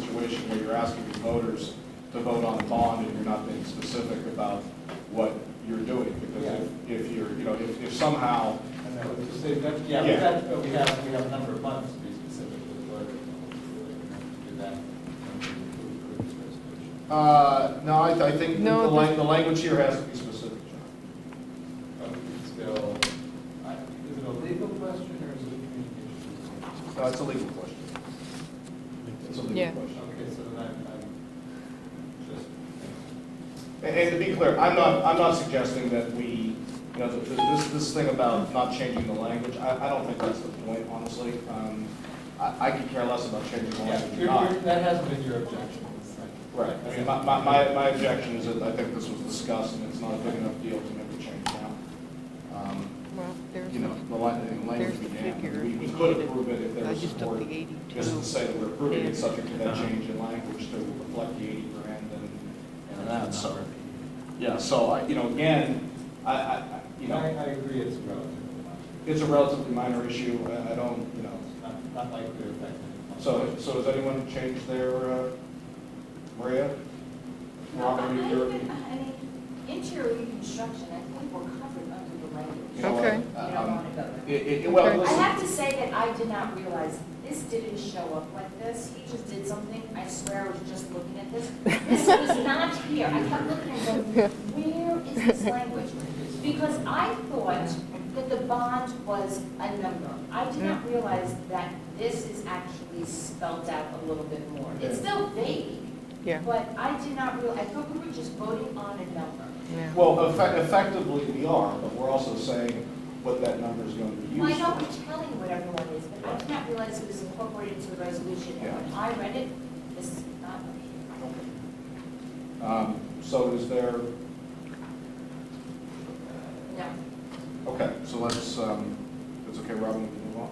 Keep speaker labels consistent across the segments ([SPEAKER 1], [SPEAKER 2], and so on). [SPEAKER 1] situation where you're asking the voters to vote on a bond and you're not being specific about what you're doing. Because if, if you're, you know, if, if somehow,
[SPEAKER 2] And that would just say, that, yeah,
[SPEAKER 1] Yeah.
[SPEAKER 2] but that's, but we have, we have a number of months to be specific with the voter. To do that. when we approve this resolution.
[SPEAKER 1] uh, no, I, I think the
[SPEAKER 3] No,
[SPEAKER 1] lang, the language here has to be specific, John.
[SPEAKER 2] But we can still, I- is it a legal question or is it a communication?
[SPEAKER 1] No, it's a legal question. It's a
[SPEAKER 3] Yeah.
[SPEAKER 1] legal question.
[SPEAKER 2] Okay, so then I'm, I'm just,
[SPEAKER 1] And, and to be clear, I'm not, I'm not suggesting that we, you know, th- th- this, this thing about not changing the language, I, I don't think that's the point, honestly. Um, I, I could care less about changing the
[SPEAKER 2] yeah,
[SPEAKER 1] language or
[SPEAKER 2] you're-
[SPEAKER 1] not.
[SPEAKER 2] you're- that hasn't been your objection. it's like-
[SPEAKER 1] Right, I mean, my, my, my my objection is that I think this was discussed and it's not a big enough deal to make a change now. Um,
[SPEAKER 3] Well, there's,
[SPEAKER 1] You know, the lan- the language
[SPEAKER 3] there's
[SPEAKER 1] we
[SPEAKER 3] the
[SPEAKER 1] have,
[SPEAKER 3] figure.
[SPEAKER 1] we we could approve it if there
[SPEAKER 3] I
[SPEAKER 1] was
[SPEAKER 3] just took
[SPEAKER 1] support.
[SPEAKER 3] the
[SPEAKER 1] Just to
[SPEAKER 3] eighty-two.
[SPEAKER 1] say that we're approving
[SPEAKER 3] Yeah.
[SPEAKER 1] it subject to that change in language to reflect the eighty grand and, and that, so. Yeah, so I, you know, again, I, I, I- you
[SPEAKER 2] I,
[SPEAKER 1] know,
[SPEAKER 2] I agree it's relatively minor.
[SPEAKER 1] it's a relatively minor issue, I, I don't, you know.
[SPEAKER 2] It's not, not likely to affect any.
[SPEAKER 1] So, so does anyone change their, uh, Maria? Robert,
[SPEAKER 4] I
[SPEAKER 1] you're-
[SPEAKER 4] think, I mean, Interior reconstruction, I think we're covered under the
[SPEAKER 1] you
[SPEAKER 4] language.
[SPEAKER 1] know what?
[SPEAKER 3] Okay.
[SPEAKER 4] You don't
[SPEAKER 1] Um,
[SPEAKER 4] want to go there.
[SPEAKER 1] It, it, well,
[SPEAKER 3] Okay.
[SPEAKER 4] I
[SPEAKER 1] listen,
[SPEAKER 4] have to say that I did not realize, this didn't show up like this, he just did something, I swear I was just looking at this. This was not here, I kept looking and going, where is this language? Because I thought that the bond was a number. I did not realize that this is actually spelled out a little bit more. It's still vague,
[SPEAKER 3] Yeah,
[SPEAKER 4] but I did not real, I thought we were just voting on a number.
[SPEAKER 3] yeah.
[SPEAKER 1] well, effe- effectively we are, but we're also saying what that number is going to be
[SPEAKER 4] Well, I
[SPEAKER 1] used
[SPEAKER 4] know
[SPEAKER 1] for.
[SPEAKER 4] we're telling what everyone is, but I did not realize it was incorporated into the resolution. And when I read it, this is not up here.
[SPEAKER 1] Um, so is there,
[SPEAKER 4] No.
[SPEAKER 1] okay, so let's, um, it's okay, Robin, we can move on.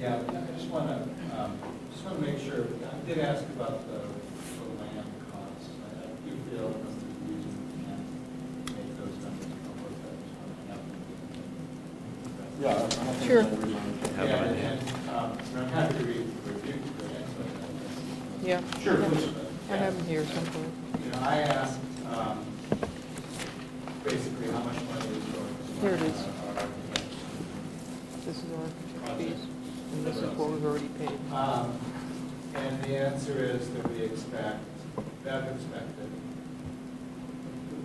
[SPEAKER 2] Yeah, I just want to, just want to make sure, I did ask about the the land costs. I I do feel that there's a reason we can't make those numbers come with that.
[SPEAKER 1] Yeah.
[SPEAKER 2] Just want to know.
[SPEAKER 1] I don't think
[SPEAKER 3] Sure.
[SPEAKER 1] there's any reason.
[SPEAKER 2] Yeah, and, and, um, and I'm happy to read the review. for the next one.
[SPEAKER 3] Yeah.
[SPEAKER 1] Sure, please.
[SPEAKER 3] I have them here somewhere.
[SPEAKER 2] You know, I asked, um, basically how much money is going to.
[SPEAKER 3] Here it is.
[SPEAKER 2] our- our-
[SPEAKER 3] This is our architect fees, and this is what we've already paid.
[SPEAKER 2] Um, And the answer is that we expect, that expected,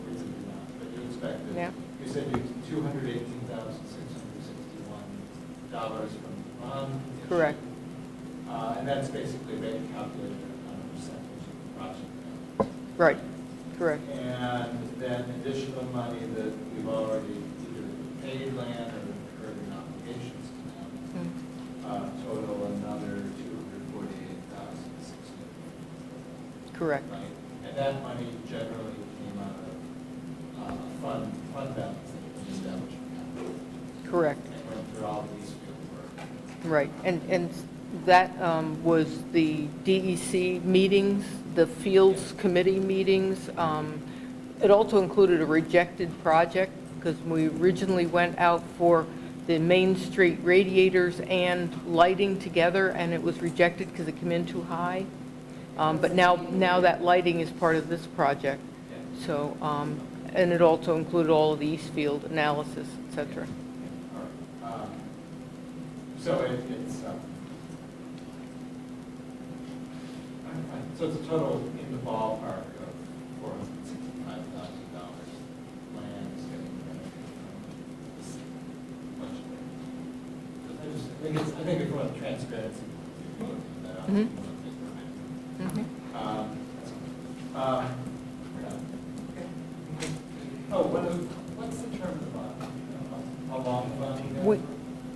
[SPEAKER 2] reasonably not, but you expected.
[SPEAKER 3] Yeah.
[SPEAKER 2] You said you, two hundred eighteen thousand, six hundred sixty-one dollars from the bond. issue.
[SPEAKER 3] Correct.
[SPEAKER 2] Uh, And that's basically been calculated on a percentage of the project.
[SPEAKER 3] Right, correct.
[SPEAKER 2] And then additional money that we've already either paid land or incurred in obligations to them
[SPEAKER 3] Mm.
[SPEAKER 2] uh, total another two hundred forty-eight thousand six hundred.
[SPEAKER 3] Correct,
[SPEAKER 2] Right, and that money generally came out of, uh, fund, fund balance that was established.
[SPEAKER 3] correct,
[SPEAKER 2] And went through all these field work.
[SPEAKER 3] right. And, and that um, was the DEC meetings, the Fields Committee meetings. Um, It also included a rejected project, because we originally went out for the Main Street radiators and lighting together, and it was rejected because it came in too high. Um, But now, now that lighting is part of this project. So, um, and it also included all of the Eastfield analysis, et cetera.
[SPEAKER 2] All right. Um, So it, it's, um, I- I- so it's a total in the ballpark of four hundred sixty-five thousand dollars. Land is getting renovated from this much. I just, I think it's, I think it's about transparency. People are looking at that.
[SPEAKER 3] Mhm. Mhm.
[SPEAKER 2] Um, um, Oh, what is, what's the term of the bond? How long the bond? is?
[SPEAKER 3] We-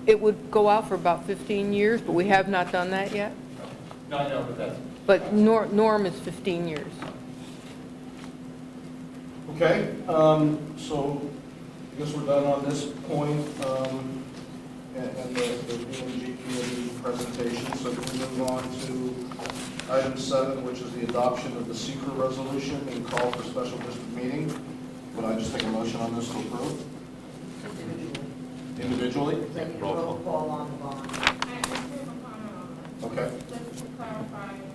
[SPEAKER 3] It would go out for about 15 years, but we have not done that yet.
[SPEAKER 2] No, I know, but that's,
[SPEAKER 3] But nor- norm is 15 years.
[SPEAKER 1] Okay, um, so I guess we're done on this point, um, and, and the, the PNG committee presentation. So can we move on to item seven, which is the adoption of the secret resolution and call for special district meeting? Would I just take a motion on this to approve individually?
[SPEAKER 4] Like roll call on the
[SPEAKER 5] I
[SPEAKER 4] bond.
[SPEAKER 5] just have a comment on
[SPEAKER 1] Okay,
[SPEAKER 5] that, um, just to clarify,